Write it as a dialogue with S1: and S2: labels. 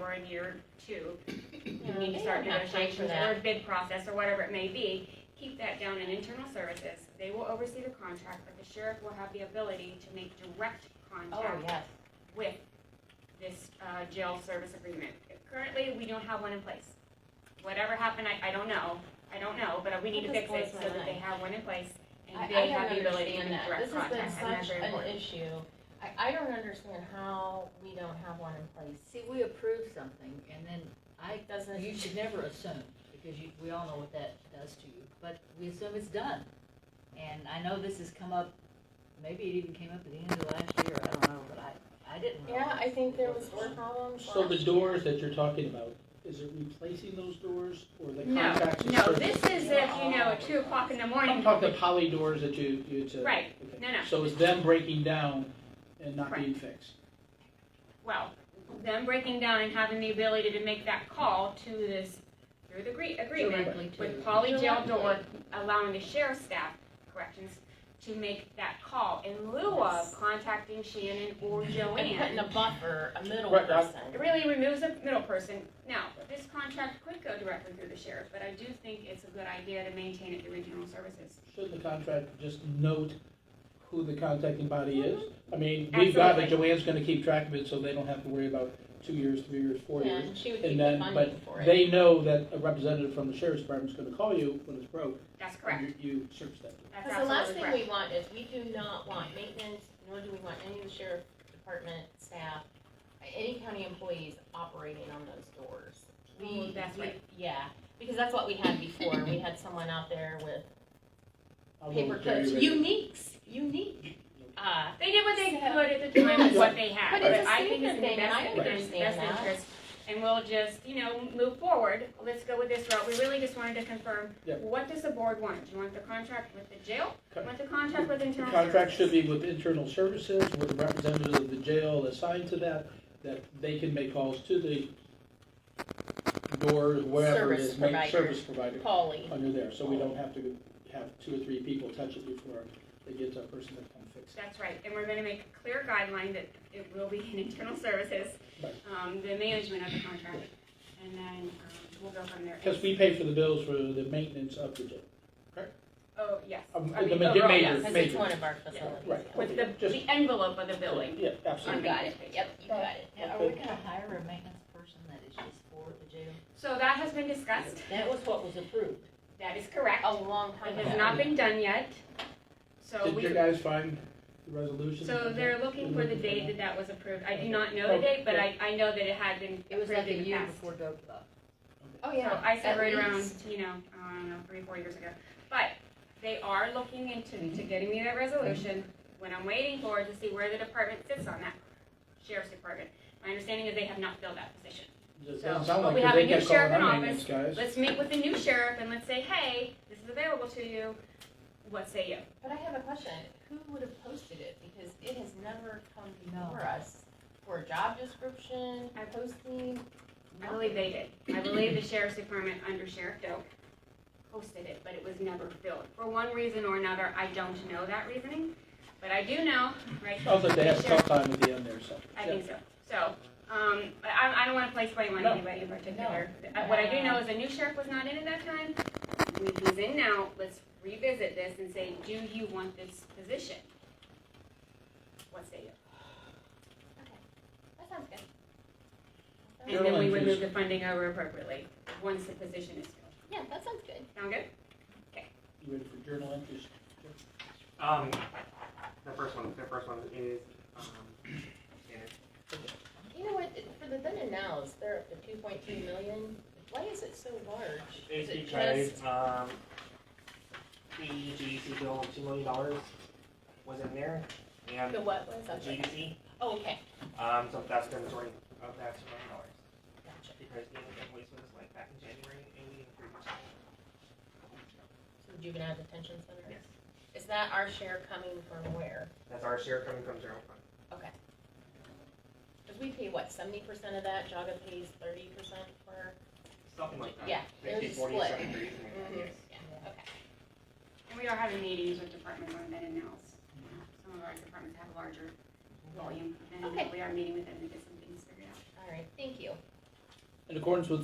S1: we're in year two,
S2: Yeah,
S1: you need
S2: they
S1: to start
S2: don't have time for
S1: negotiations
S2: that.
S1: or bid process or whatever it may be, keep that down in internal services. They will oversee the contract, but the sheriff will have the ability to make direct
S2: Oh,
S1: contact
S2: yes,
S1: with this uh, jail service agreement. Currently, we don't have one in place. Whatever happened, I, I don't know, I don't know, but we need to fix
S2: That blows
S1: it
S2: my
S1: so that they
S2: mind.
S1: have one in place
S2: I,
S1: and
S2: I
S1: they
S2: don't
S1: have the ability to
S2: understand
S1: make
S2: that,
S1: direct
S2: this has
S1: contact.
S2: been
S1: and that's
S2: such
S1: very
S2: an
S1: important.
S2: issue, I, I don't understand how we don't have one in place.
S3: See, we approve something and then I,
S2: It doesn't,
S3: you should never assume, because you, we all know what that does to you, but we assume it's done. And I know this has come up, maybe it even came up at the end of last year, I don't know, but I, I didn't.
S2: yeah, I think there was more
S3: one.
S2: problems.
S4: So the
S2: last year.
S4: doors that you're talking about, is it replacing those doors or the
S1: No,
S4: contacts? and
S1: No,
S4: services?
S1: this is if, you know, at two o'clock in the
S4: I'm
S1: morning,
S4: talking the poly doors that you, you to.
S1: Right.
S4: okay.
S1: No, no.
S4: So it's them breaking down and not being fixed.
S1: well, them breaking down and having the ability to make that call to this, through the agree- agreement,
S3: Directly to-
S1: with Polly Jail Door allowing the sheriff's staff, corrections, to make that call in lieu of contacting Shannon or
S2: And putting a
S1: Joanne.
S2: buffer, a middle
S4: Right, I-
S2: person.
S1: It really removes the middle person. Now, this contract could go directly through the sheriff, but I do think it's a good idea to maintain it through regional services.
S4: Should the contract just note who the contacting body is? I mean, we've got that
S1: Mm-hmm. Absolutely.
S4: Joanne's gonna keep track of it, so they don't have to worry about two years, three years, four
S2: Yeah,
S4: years.
S2: and she would
S4: And
S2: keep the
S4: then-
S2: funding for it.
S4: They know that a representative from the sheriff's department's gonna call you when it's broke.
S1: That's
S2: Mm-hmm.
S1: correct.
S4: and You you search that.
S1: That's
S2: Because the last
S1: absolutely
S2: thing
S1: correct.
S2: we want is, we do not want maintenance, nor do we want any of the sheriff department staff, any county employees operating on those doors.
S1: Oh,
S2: We,
S1: that's
S2: we-
S1: right.
S2: yeah, because that's what we had before, we had someone out there with
S4: I'll go
S2: paper
S4: with Jerry
S2: clips,
S4: Ray.
S2: uniques, unique, uh,
S1: They did what they
S2: So-
S1: could at the time with what they had,
S2: But
S1: but
S2: it's a
S1: I think
S2: safety
S1: it's in the
S2: thing, and I
S1: best interest,
S2: understand
S1: best
S2: that.
S1: interest. And we'll just, you know, move forward, let's go with this route, we really just wanted to confirm,
S4: Yep.
S1: what does the board want? Do you want the contract with the jail? Do you
S4: Co-
S1: Want the contract with
S4: The
S1: internal services?
S4: contract should be with internal services, with a representative of the jail assigned to that, that they can make calls to the door, wherever it is,
S2: Service
S4: main
S2: provider.
S4: service provider,
S2: Polly.
S4: under there, so we don't have to have two or three people touch it before they get to a person that can fix it.
S1: That's right, and we're gonna make a clear guideline that it will be in internal services,
S4: Right.
S1: um, the management of the contract. And then, um, we'll go from there.
S4: Because we pay for the bills for the maintenance of the jail.
S1: Oh, yes.
S4: Um,
S1: I mean,
S4: the ma-
S1: overall,
S4: major-
S1: yes.
S2: Because it's
S4: major.
S2: one of our facilities.
S4: Right.
S1: With the,
S4: Just-
S1: the envelope of the billing.
S4: Yeah,
S1: on
S2: You
S4: absolutely.
S2: got it, yep, you got it.
S3: Now, Are we gonna hire a maintenance person that is just for the jail?
S1: So that has been discussed,
S3: That was what was approved.
S1: that is correct.
S2: A long time
S1: It has
S2: ago.
S1: not been done yet, so
S4: Did
S1: we,
S4: you guys find the resolution?
S1: so they're looking for the date that that was approved. I do not know the date, but I, I know that it had been
S3: It was like
S1: approved
S3: a
S1: in the
S3: year
S1: past.
S3: before Dope left.
S2: Oh,
S1: So
S2: yeah.
S1: I said
S2: at
S1: right around,
S2: least.
S1: you know, I don't know, three, four years ago. But they are looking into, to getting me that resolution. What I'm waiting for is to see where the department sits on that, sheriff's department. My understanding is they have not filled that position.
S4: Doesn't
S1: So,
S4: sound
S1: but
S4: like
S1: we
S4: it.
S1: have
S4: They
S1: a new
S4: kept calling
S1: sheriff in
S4: our
S1: office.
S4: maintenance guys.
S1: Let's meet with the new sheriff and let's say, hey, this is available to you. What say you?
S2: But I have a question, who would have posted it? Because it has never come
S3: No.
S2: before us for a job description, posting.
S1: I believe they did. I believe the sheriff's department under Sheriff Doak posted it, but it was never filled. For one reason or another, I don't know that reasoning, but I do know, right?
S4: Also, they have a
S1: Sheriff-
S4: tough time at the end there, so.
S1: I
S4: yeah.
S1: think so. So, um, but I, I don't wanna place blame on
S4: No.
S1: anybody in particular. Uh, What I do know is a new sheriff was not in at that time. We- He's in now. Let's revisit this and say, do you want this position? What say you?
S2: That sounds good.
S1: And then we would move
S4: Carolyn,
S1: the funding over appropriately, once the position is filled.
S2: Yeah, that sounds good.
S1: Sound good?
S4: You ready for journal entries?
S5: Um, the first one, the first one is, um, Shannon.
S2: You know what, it- for the then and nows, they're up to two point three million. Why is it so large? Is
S5: It's
S2: it
S5: because,
S2: just-
S5: um, the GDC bill of two million dollars was in there, and
S2: The what was
S5: the
S2: that?
S5: GDC,
S2: Oh, okay,
S5: um, so that's the majority of that two million dollars.
S2: gotcha.
S5: Because the invoice was like back in January, and we didn't approve it.
S2: So juvenile detention center?
S5: Yes,
S2: Is that our share coming from where?
S5: that's our share coming from general fund.
S2: Because we pay what, seventy percent of that? Jaga pays thirty percent for?
S5: Something like that.
S2: Yeah, there's
S5: Fifty,
S2: a
S5: forty,
S2: split.
S5: something crazy like that,
S2: Mhm.
S5: yes.
S2: Yeah, okay.
S1: And we are having meetings with departments on that and nows. Some of our departments have larger volume, and
S2: Okay.
S1: we are meeting with them to get some things figured out.
S2: All right, thank you.
S4: in accordance with